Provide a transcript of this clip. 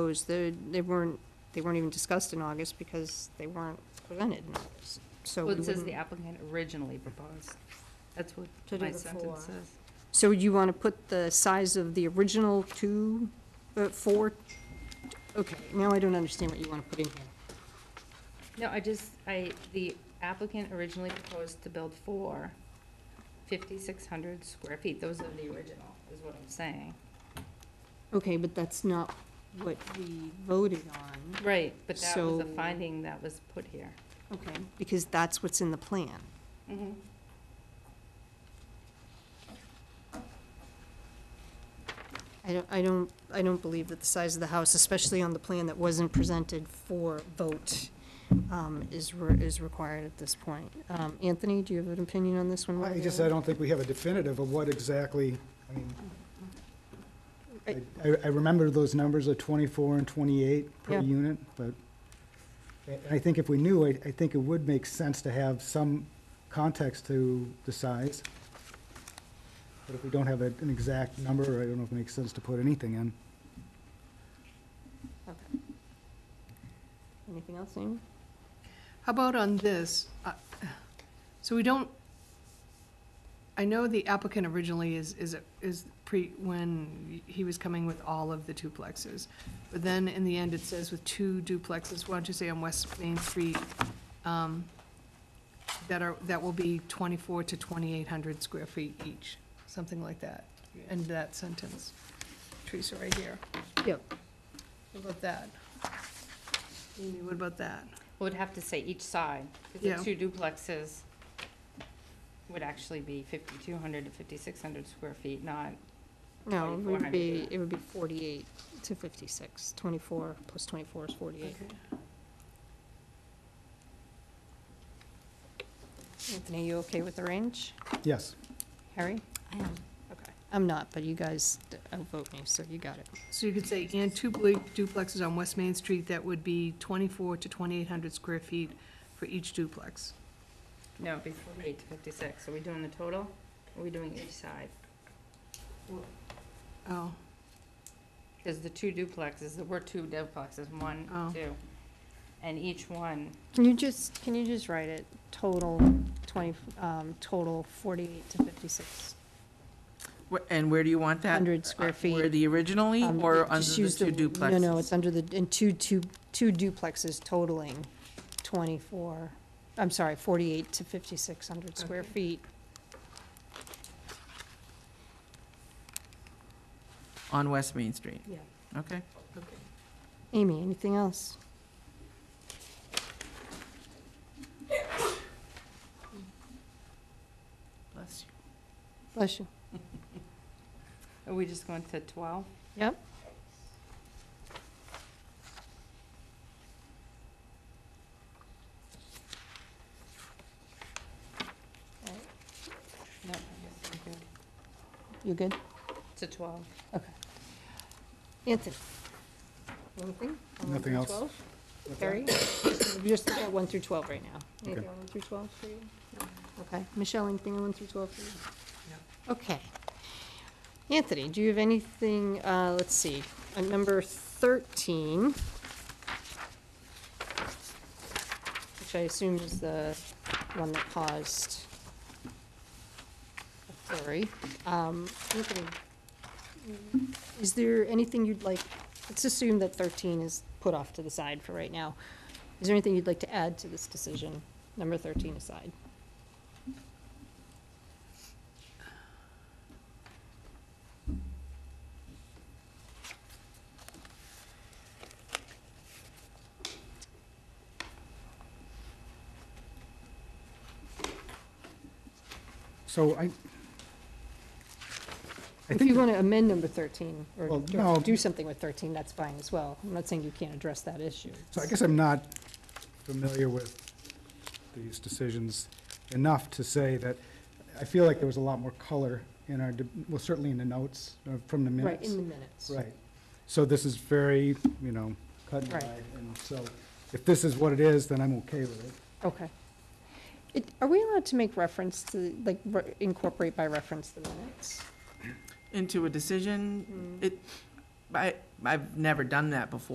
those, the- they weren't, they weren't even discussed in August because they weren't presented in August. So, Well, we it says the wouldn't- applicant originally proposed. That's what To do my the four. sentence says. so you want to put the size of the original two, uh, four? Okay, now I don't understand what you want to put in here. No, I just, I, the applicant originally proposed to build four 5,600 square feet. Those are the original, is what I'm saying. Okay, but that's not what we voted on, Right, but that was the So- finding that was put here. okay, because that's what's in the plan. I don't, I don't, I don't believe that the size of the house, especially on the plan that wasn't presented for vote, um, is, re- is required at this point. Um, Anthony, do you have an opinion on this one? one I way or just, the I other? don't think we have a definitive of what exactly, I mean, I- I- I, I remember those numbers of 24 and 28 per Yeah. unit, but I- I think if we knew, I, I think it would make sense to have some context to the size. But if we don't have a- an exact number, I don't know if it makes sense to put anything in. Okay. Anything else, Amy? How about on this? Uh, So we don't, I know the applicant originally is, is, is pre, when he was coming with all of the duplexes. But then in the end, it says with two duplexes, why don't you say on West Main Street, um, that are, that will be twenty-four to twenty-eight hundred square feet each, something like that. End that sentence. Teresa, right here. Yep. What about that? Amy, what about that? Would have to say each side, Yeah. because the two duplexes would actually be 5,200 to 5,600 square feet, not, No, it would 2400. be, it would be forty-eight to fifty-six. Twenty-four plus twenty-four is forty-eight. Anthony, you okay with the range? Yes. Harry? I am. okay. I'm not, but you guys outvote me, so you got it. So you could say, and two blu- duplexes on West Main Street, that would be twenty-four to twenty-eight hundred square feet for each duplex. No, it'd be 48 to 56. Are we doing the total? Are we doing each side? Oh, Because the two duplexes, there were two duplexes, one, Oh. two. And each one, Can you just, can you just write it, total twenty, um, total forty-eight to fifty-six? Wh- And where do you want that? 100 square Uh, feet. Where the originally Um, or just under the use two duplexes? No, no, it's under the, and two, two, two duplexes totaling twenty-four, I'm sorry, forty-eight to fifty-six hundred square Okay. feet. On West Main Street, Yeah. okay? okay. Amy, anything else? Bless you. Bless you. are we just going to 12? Yep. No, I guess I'm good. You good? To 12. Okay. Anthony? Anything? on one Nothing through else. 12? Terry? We're just looking at one through twelve right now. Anything on one through twelve for you? Okay. Michelle, anything on one through twelve for you? Okay. Anthony, do you have anything, uh, let's see, on number thirteen, which I assume is the one that caused a flurry. Um, Anthony, is there anything you'd like, let's assume that 13 is put off to the side for right now. Is there anything you'd like to add to this decision, number 13 aside? So I, I If you think, want to amend number 13, or Well, or no. do something with 13, that's fine as well. I'm not saying you can't address that issue. so I guess I'm not familiar with these decisions enough to say that, I feel like there was a lot more color in our, de- well, certainly in the notes, uh, from the minutes. Right, in the minutes. Right. So this is very, you know, cut and Right. dried, and so if this is what it is, then I'm okay with it. Okay. It- Are we allowed to make reference to, like, re- incorporate by reference the minutes? mm. Into a decision, it, I, I've never done that before.